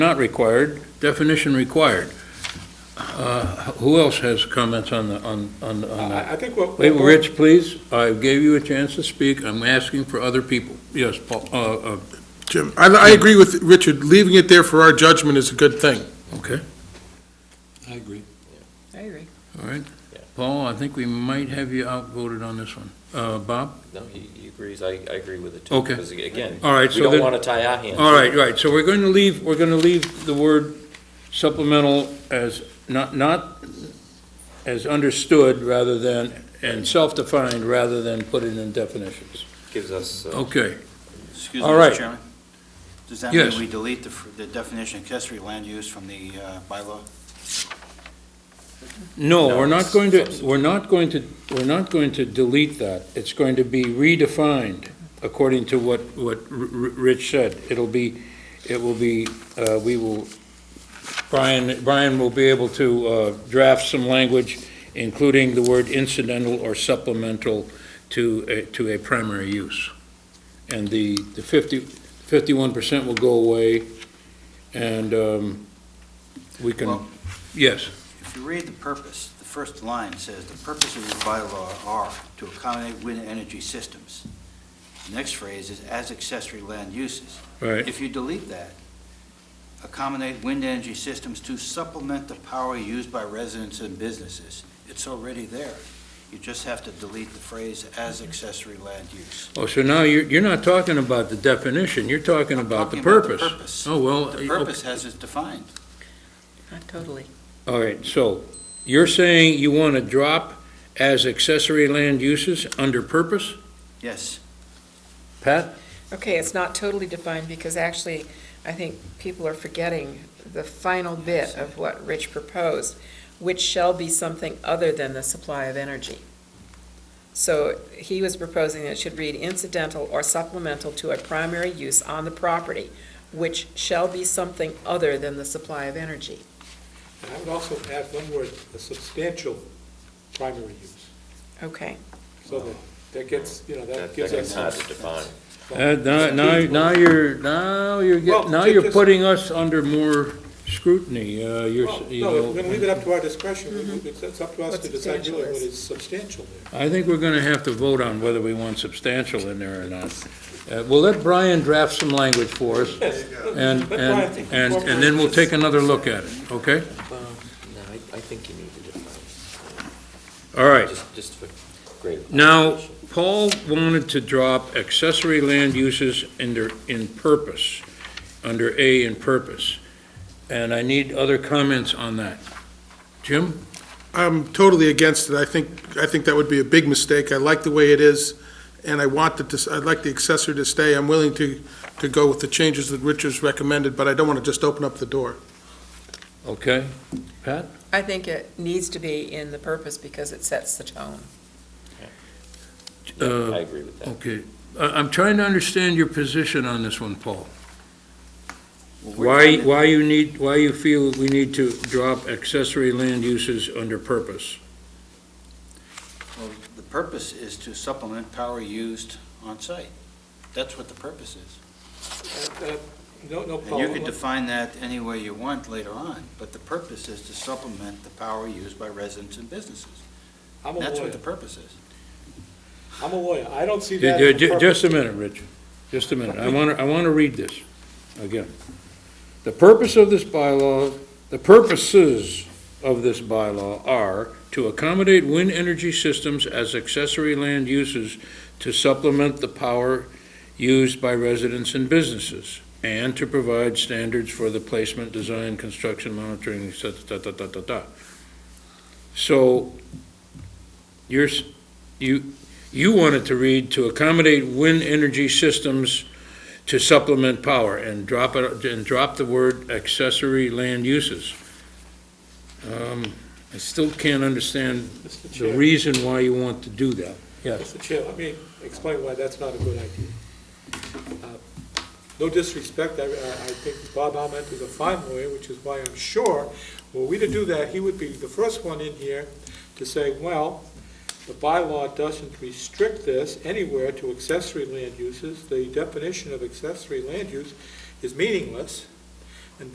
Not required, definition required. Uh, Who else has comments on the, on, on on Uh, that? I I think what. Wait, Rich, please, I gave you a chance to speak, I'm asking for other people. Yes, Paul, uh, uh, Jim, I, I agree with Richard, leaving it there for our judgment is a good thing. okay, I agree. I agree. all right. Paul, I think we might have you outvoted on this one. Uh, Bob? No, he, he agrees, I, I agree with it too. Okay. Because again, All right, we so don't then, want to tie our hands. all right, right, so we're going to leave, we're going to leave the word supplemental as, not, not as understood rather than, and self-defined rather than put it in definitions. Gives us, uh, Okay, Excuse me, All right. Mr. Chairman? Does that mean Yes. we delete the f- the definition of accessory land use from the uh, bylaw? No, No, we're not it's going to, substantive. we're not going to, we're not going to delete that. It's going to be redefined according to what, what R- R- Rich said. It'll be, it will be, uh, we will, Brian, Brian will be able to uh, draft some language, including the word incidental or supplemental to, a- to a primary use. And the, the 50, 51% will go away, and um, we can, Well- yes, If you read the purpose, the first line says, "The purpose of this bylaw are to accommodate wind energy systems." The Next phrase is, "As accessory land uses." right. If you delete that, "Accommodate wind energy systems to supplement the power used by residents and businesses," it's already there. You just have to delete the phrase, "As accessory land use." Oh, so now you're, you're not talking about the definition, you're talking about the Talking purpose. purpose. Oh, well, The purpose has it defined. Not totally. oh, all right, so you're saying you want to drop as accessory land uses under purpose? Yes. Pat? Okay, it's not totally defined because actually, I think people are forgetting the final bit of what Rich proposed, which shall be something other than the supply of energy. So he was proposing that it should read incidental or supplemental to a primary use on the property, which shall be something other than the supply of energy. And I would also add one word, a substantial primary use, Okay, so that, that gets, you know, that that, that gives gets hard us. to define. Uh, Now, now now you're, now you're, Well, get- now ju- you're just- putting us under more scrutiny, uh, you're, Well, s- you No, we're know. gonna leave it up to our discretion, We- we- it's it's up to us What to decide substantial really what is. is substantial there. I think we're going to have to vote on whether we want substantial in there or not. Uh, We'll let Brian draft some language for us, Yes, and, let Brian and, think and before and then we'll we- take another look at it, okay? No, I, I think you need to define, All right. just, just for greater. Now, Paul wanted to drop accessory land uses under, in purpose, under A in purpose, and I need other comments on that. Jim? I'm totally against it, I think, I think that would be a big mistake, I like the way it is, and I want the, dis- I'd like the accessory to stay, I'm willing to, to go with the changes that Richard's recommended, but I don't want to just open up the door. Okay. Pat? I think it needs to be in the purpose because it sets the tone. Yeah, Uh, I agree with that. Okay. I, I'm trying to understand your position on this one, Paul. Well, we're Why, trying to- why you need, why you feel we need to drop accessory land uses under purpose? Well, The purpose is to supplement power used on-site. That's what the purpose is. Uh, uh, No, no And you could define problem, that any way you want later on, but the purpose is to supplement the power used by residents and businesses. I'm a That's lawyer, what the purpose is. I'm a lawyer, I don't see that. Ju- in the ju- purpose. Just a minute, Rich. Just a minute. I want to, I want to read this again. The purpose of this bylaw, the purposes of this bylaw are to accommodate wind energy systems as accessory land uses to supplement the power used by residents and businesses, and to provide standards for the placement, design, construction, monitoring, et cetera, da, da, da, da, da. So, you're, s- you, you wanted to read to accommodate wind energy systems to supplement power and drop it, and drop the word accessory land uses. Um, I still can't understand Mr. the Chair, reason why you want to do that. Yes. Mr. Chair, let me explain why that's not a good idea. Uh, No disrespect, I, I I think Bob Alment is a fine lawyer, which is why I'm sure, were we to do that, he would be the first one in here to say, well, the bylaw doesn't restrict this anywhere to accessory land uses. The definition of accessory land use is meaningless.